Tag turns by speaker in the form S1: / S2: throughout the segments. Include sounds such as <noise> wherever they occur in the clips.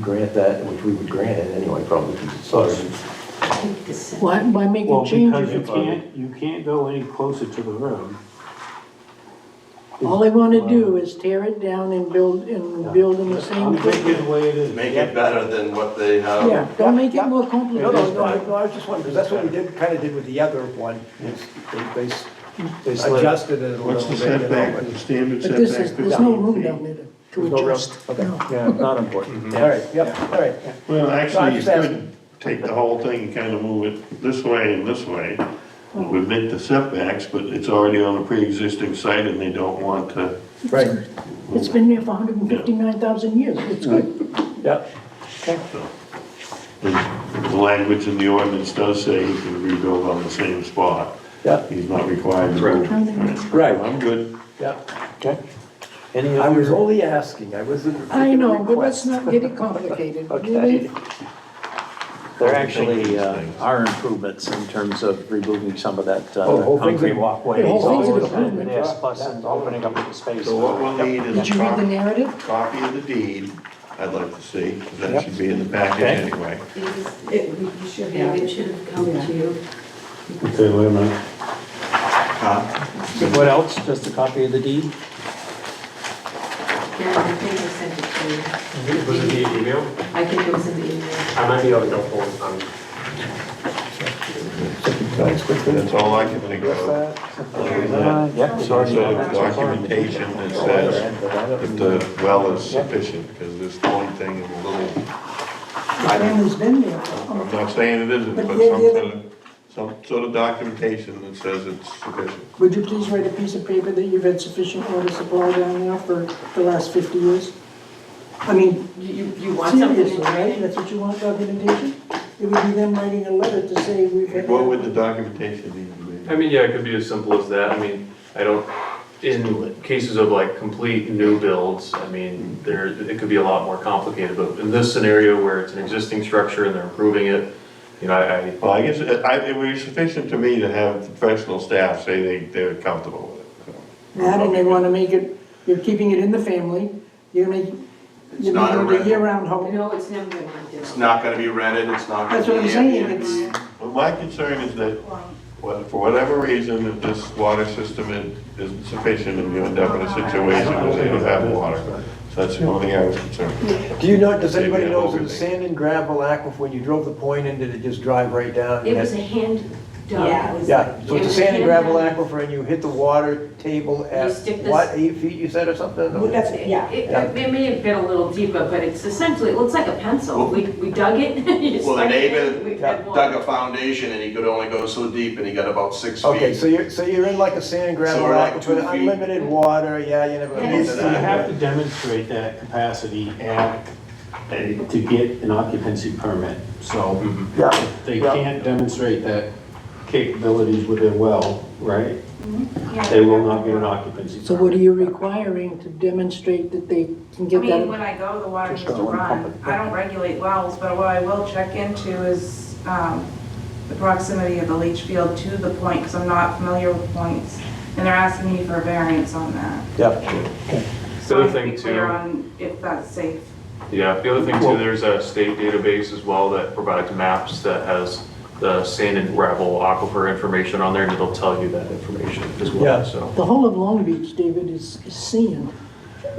S1: grant that, which we would grant it anyway, probably, sorry.
S2: Why, why make
S3: Well,
S2: a change
S3: because
S2: if
S3: you
S2: it's gonna?
S3: can't, you can't go any closer to the road.
S2: All they wanna do is tear it down and build, and build in the same
S3: I'm thinking
S2: thing.
S3: the way it is.
S4: Make it better than what they have.
S2: Yeah, don't make it more
S5: No, no,
S2: complicated.
S5: no, I- no, I was just wondering, because that's what we did, kind of did with the other one, is they- they s-
S1: They slid-
S5: adjusted it a little bit.
S6: What's the
S5: you know,
S6: setback,
S5: but-
S6: the standard
S2: But this
S6: setback?
S2: is, there's no
S6: 15
S2: room
S6: feet?
S2: down there
S5: There's no
S2: to
S5: real-
S2: adjust.
S5: okay.
S2: No.
S1: Yeah, not important.
S6: Mm-hmm.
S5: All right, yeah, all right.
S6: Well,
S5: No, I'm
S6: actually, you
S5: just asking.
S6: could take the whole thing and kind of move it this way and this way. It would make the setbacks, but it's already on a pre-existing site and they don't want to.
S5: Right,
S2: It's been there for hundred and fifty-nine thousand years, it's good.
S5: yeah.
S6: and The language in the ordinance does say he can rebuild on the same spot.
S5: Yeah.
S6: He's not required to move. Right.
S5: Right.
S6: I'm good.
S5: Yeah,
S1: Okay. Any
S5: I was
S1: other,
S5: only asking, I wasn't
S2: I
S5: making a
S2: know, but let's
S5: request.
S2: not get it complicated,
S5: <laughs> Okay.
S2: really.
S1: they're actually, uh, are improvements in terms of removing some of that,
S5: Oh, the
S1: uh,
S5: whole thing's
S1: concrete
S5: a-
S1: walkway.
S2: the whole thing's an improvement.
S1: Yes, plus and opening up the space.
S6: So what we'll need
S2: Did
S6: is a
S2: you read the
S6: copy,
S2: narrative?
S6: copy of the deed, I'd like to see, that should be in the package
S1: Okay.
S6: anyway.
S7: It, you should have, it should have come to you.
S6: Okay, wait a minute.
S1: What else? Just a copy of the deed?
S7: Yeah, I think I sent it to you.
S8: Was it the email?
S7: I think it was in the email.
S8: I might be able to go forward um, on
S6: That's all I can think of. Other than that,
S1: Yeah,
S6: Sort
S1: sorry.
S6: of documentation that says that the well is sufficient, because this one thing is a little,
S2: The family's been there. for-
S6: I'm not saying it isn't, but some sort of, some sort of documentation that says it's sufficient.
S2: Would you please write a piece of paper that you've had sufficient water supply down there for the last fifty years? I mean,
S7: You, you- you want something
S2: seriously,
S7: in
S2: right?
S7: writing?
S2: That's what you want documentation? It would be them writing a letter to say we've had.
S6: What would the documentation need to
S8: I
S6: be?
S8: mean, yeah, it could be as simple as that. I mean, I don't, in cases of like complete new builds, I mean, there, it could be a lot more complicated. But in this scenario where it's an existing structure and they're improving it, you know, I, I-
S6: Well, I guess, it- I, it would be sufficient to me to have professional staff say they, they're comfortable with it.
S2: That, and they wanna make it, you're keeping it in the family, you're making,
S4: It's
S2: you're
S4: not
S2: making
S4: a
S2: it a
S4: rental.
S2: year-round home.
S7: No, it's never been like this.
S4: It's not gonna be rented, it's not gonna
S2: That's
S4: be
S2: what I'm saying,
S4: Airbnb.
S2: it's,
S6: Well, my concern is that, well, for whatever reason, if this water system is- isn't sufficient and you end up in a situation where they don't have water. So that's the only thing I was concerned. with.
S5: Do you know, does anybody
S6: Maybe
S5: know, is
S6: I'm
S5: it a
S6: overthinking.
S5: sand and gravel aquifer, when you drove the point in, did it just drive right down?
S7: It was a hand dug. It was-
S5: Yeah, so
S7: it
S5: it's a
S7: was
S5: sand and
S7: hand
S5: gravel
S7: dug.
S5: aquifer and you hit the water table at,
S7: stick this-
S5: what, eight feet you said or something?
S7: It, it- it may have been a little deeper, but it's essentially, it looks like a pencil.
S4: Well-
S7: We, we dug it. <laughs> you
S4: Well, the
S7: stuck it in,
S4: neighbor
S7: we had water.
S4: dug a foundation and he could only go so deep and he got about six feet.
S5: Okay, so you're, so you're in like a sand gravel
S4: So we're like two
S5: aquifer,
S4: feet.
S5: unlimited water, yeah, you never.
S7: Yeah.
S3: You have to demonstrate that capacity at, a- to get an occupancy permit, so.
S8: Mm-hmm.
S5: Yeah.
S3: if They
S5: Yeah.
S3: can't demonstrate that capabilities with their well, right?
S9: Mm-hmm.
S3: They will not get an occupancy permit.
S2: so what are you requiring to demonstrate that they can
S9: I
S2: get
S9: mean,
S2: that?
S9: when I go, the water needs to run. I don't regulate wells, but what I will check into is um, the proximity of the leach field to the point, because I'm not familiar with points. And they're asking me for a variance on that.
S5: Yeah.
S8: The
S9: So
S8: other
S9: I have to
S8: thing
S9: be clear
S8: too-
S9: on if that's safe.
S8: yeah, the other thing too, there's a state database as well that provides maps that has the sand and gravel aquifer information on there and it'll tell you that information as
S5: Yeah.
S8: well, so.
S2: The whole of Long Beach, David, is is sand.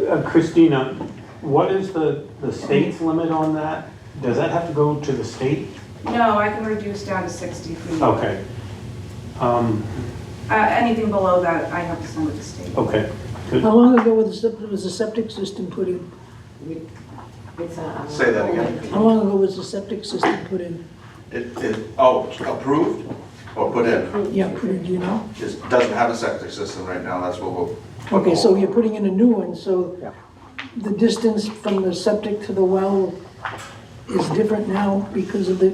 S3: Uh, Christina, what is the, the state's limit on that? Does that have to go to the state?
S9: No, I can reduce down to 60 feet. Uh,
S3: Okay. Um,
S9: Anything below that, I have to send to the state.
S3: okay,
S2: How long ago was the, was the septic system put in?
S7: It's a, um,
S4: Say that again.
S2: How long ago was the septic system put in?
S4: It, it, oh, approved or put in?
S2: Yeah, put in, do you know?
S4: Just doesn't have a septic system right now, that's what we'll.
S2: Okay,
S4: Oh.
S2: so you're putting in a new one, so the distance from the septic to the well is different now because of the,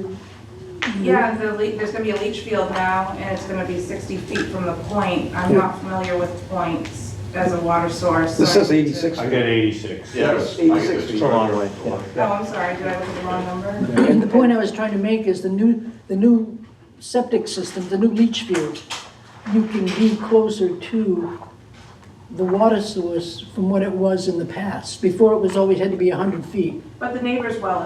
S9: Yeah, the lea- there's gonna be a leach field now, and it's gonna be 60 feet from the point. I'm not familiar with points as a water source. so
S5: This
S9: I
S5: says
S9: need to-
S5: 86.
S3: I got eighty-six.
S4: Yeah. it's- I guess
S5: 86 feet.
S4: it's-
S1: Long way, yeah.
S9: Oh, I'm sorry, did I look at the wrong
S2: the
S9: number?
S2: point I was trying to make is the new, the new septic system, the new leach field, you can be closer to the water source from what it was in the past. Before, it was always had to be 100 feet.
S9: But the neighbor's well